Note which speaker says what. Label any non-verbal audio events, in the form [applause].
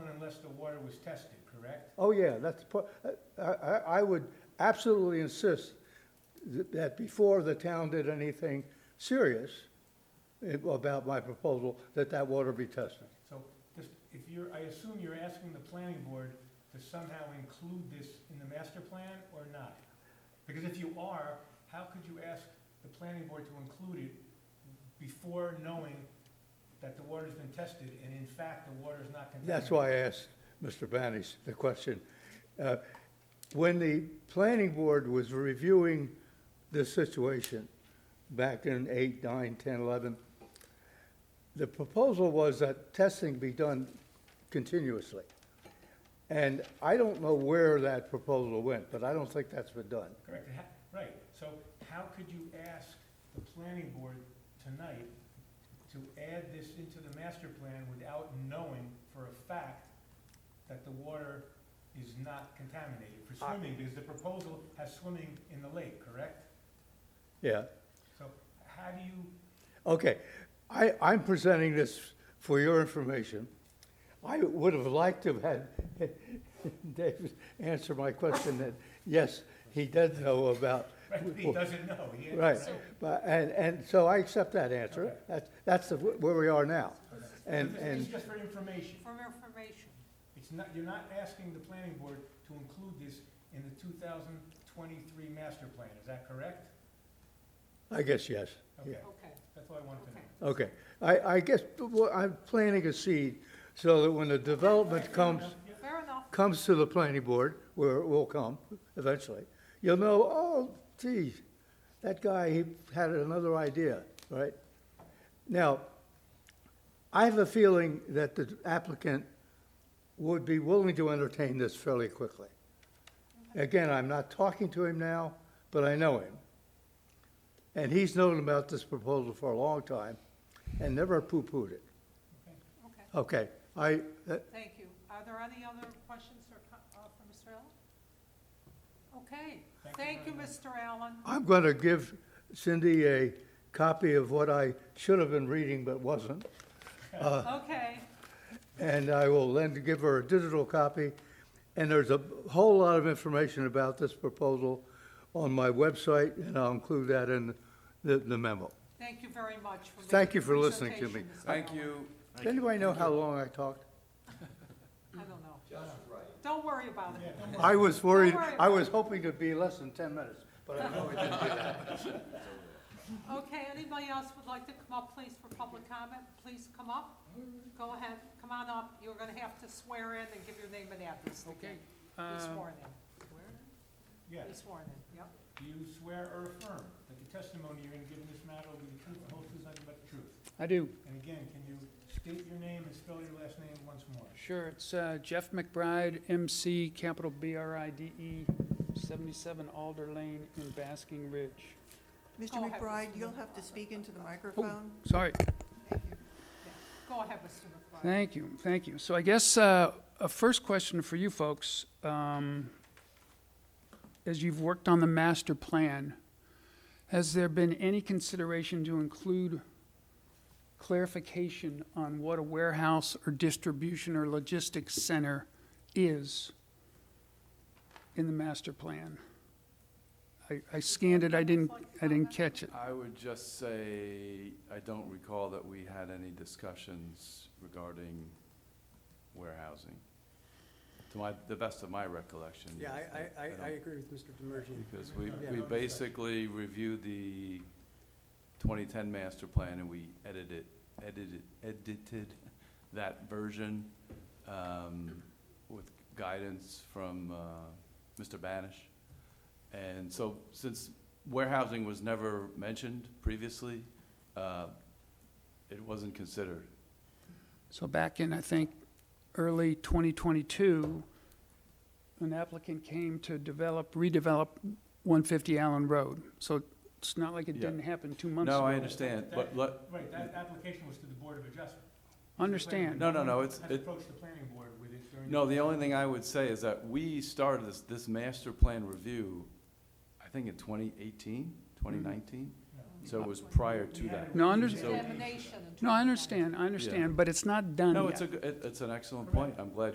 Speaker 1: water was tested, correct?
Speaker 2: Oh, yeah, that's, po- I, I, I would absolutely insist th- that before the town did anything serious eh, about my proposal, that that water be tested.
Speaker 1: So just, if you're, I assume you're asking the planning board to somehow include this in the master plan or not? Because if you are, how could you ask the planning board to include it before knowing that the water's been tested and in fact the water is not contaminated?
Speaker 2: That's why I asked Mr. Banish the question. Uh, When the planning board was reviewing this situation back in eight, nine, 10, 11, the proposal was that testing be done continuously. And I don't know where that proposal went, but I don't think that's been done.
Speaker 1: Correct, It ha- right, so how could you ask the planning board tonight to add this into the master plan without knowing for a fact that the water is not contaminated for
Speaker 2: I-
Speaker 1: swimming, because the proposal has swimming in the lake, correct?
Speaker 2: Yeah,
Speaker 1: So how do you,
Speaker 2: okay. I, I'm presenting this for your information. I would have liked to have had [laughs] David answer my question that, yes, he does know about.
Speaker 1: right, but he doesn't know, he.
Speaker 2: Right, but, and, and so I accept that answer.
Speaker 1: Okay.
Speaker 2: That's, that's the- where we are now. And,
Speaker 1: This is
Speaker 2: and,
Speaker 1: just for information,
Speaker 3: For information.
Speaker 1: it's not, you're not asking the planning board to include this in the two thousand twenty-three master plan, is that correct?
Speaker 2: I guess, yes, yeah.
Speaker 1: Okay,
Speaker 3: Okay,
Speaker 1: that's what I wanted to know.
Speaker 3: okay.
Speaker 2: Okay, I, I guess, what- I'm planting a seed so that when the development comes,
Speaker 3: Fair enough.
Speaker 2: comes to the planning board, where it will come eventually, you'll know, oh, gee, that guy, he had another idea, right? Now, I have a feeling that the applicant would be willing to entertain this fairly quickly. Again, I'm not talking to him now, but I know him. And he's known about this proposal for a long time and never poo-pooed it.
Speaker 3: Okay,
Speaker 2: Okay, I, that-
Speaker 3: thank you. Are there any other questions or, co- uh, for Mr. Allen? Okay,
Speaker 1: Thank you
Speaker 3: thank you,
Speaker 1: very much.
Speaker 3: Mr. Allen.
Speaker 2: I'm going to give Cindy a copy of what I should have been reading but wasn't, Uh.
Speaker 3: Okay,
Speaker 2: and I will then give her a digital copy. And there's a whole lot of information about this proposal on my website, and I'll include that in the the memo.
Speaker 3: thank you very much for.
Speaker 2: Thank
Speaker 3: the
Speaker 2: you for listening to
Speaker 3: presentation,
Speaker 2: me.
Speaker 3: Mr.
Speaker 4: Thank
Speaker 3: Allen.
Speaker 4: you.
Speaker 2: Does anybody know how long I talked?
Speaker 3: I don't know. Don't worry about it.
Speaker 2: I was worried,
Speaker 3: worry.
Speaker 2: I was hoping to be less than 10 minutes, but I
Speaker 3: [laughs]
Speaker 2: know it didn't.
Speaker 3: Okay, anybody else would like to come up, please, for public comment? Please come up. Go ahead, come on up. You're gonna have to swear in and give your name and address again. Be sworn
Speaker 1: um,
Speaker 3: in.
Speaker 1: Yes.
Speaker 3: Be sworn in, yep.
Speaker 1: Do you swear or affirm that the testimony you're going to give in this matter will be the truth, the whole truth, nothing but the truth?
Speaker 5: I do,
Speaker 1: And again, can you state your name and spell your last name once more?
Speaker 5: sure. It's uh, Jeff McBride, MC, capital B-R-I-D-E, 77 E, Alder Lane in Basking Ridge.
Speaker 6: Mr.
Speaker 3: Go ahead,
Speaker 6: McBride,
Speaker 3: Mr.
Speaker 6: you'll have to speak into the microphone.
Speaker 5: Sorry,
Speaker 6: Thank you.
Speaker 3: Go ahead, Mr. McBride.
Speaker 5: thank you, thank you. So I guess uh, a first question for you folks, um, as you've worked on the master plan, has there been any consideration to include clarification on what a warehouse or distribution or logistics center is in the master plan? I- I scanned it, I didn't, I didn't catch it.
Speaker 4: I would just say, I don't recall that we had any discussions regarding warehousing. To my, the best of my recollection.
Speaker 7: Yeah, I, I, I-
Speaker 4: don't-
Speaker 7: I agree with Mr. Demerjian.
Speaker 4: Because we,
Speaker 1: Yeah.
Speaker 4: we basically reviewed the 2010 master plan and we edited, edited, edited that version um, with guidance from uh, Mr. Banish. And so since warehousing was never mentioned previously, uh, it wasn't considered.
Speaker 5: So back in, I think, early 2022, an applicant came to develop, redevelop 150 Allen Road. So it's not like it
Speaker 4: Yeah.
Speaker 5: didn't happen two months ago.
Speaker 4: No, I understand, but let,
Speaker 1: Right, that application was to the Board of Adjustment.
Speaker 5: Understand.
Speaker 4: No, no, no, it's-
Speaker 1: Has
Speaker 4: it-
Speaker 1: approached the planning board with it during.
Speaker 4: No, the only thing I would say is that we started this, this master plan review, I think in 2018, 2019?
Speaker 1: No.
Speaker 4: So it was prior to
Speaker 1: We
Speaker 4: that.
Speaker 1: haven't
Speaker 5: No, I
Speaker 1: reviewed
Speaker 5: understand.
Speaker 1: it.
Speaker 3: Examination and
Speaker 5: No, I
Speaker 3: trial.
Speaker 5: understand, I understand, but it's not done yet.
Speaker 4: No, it's a, g- it- it's an excellent point. I'm glad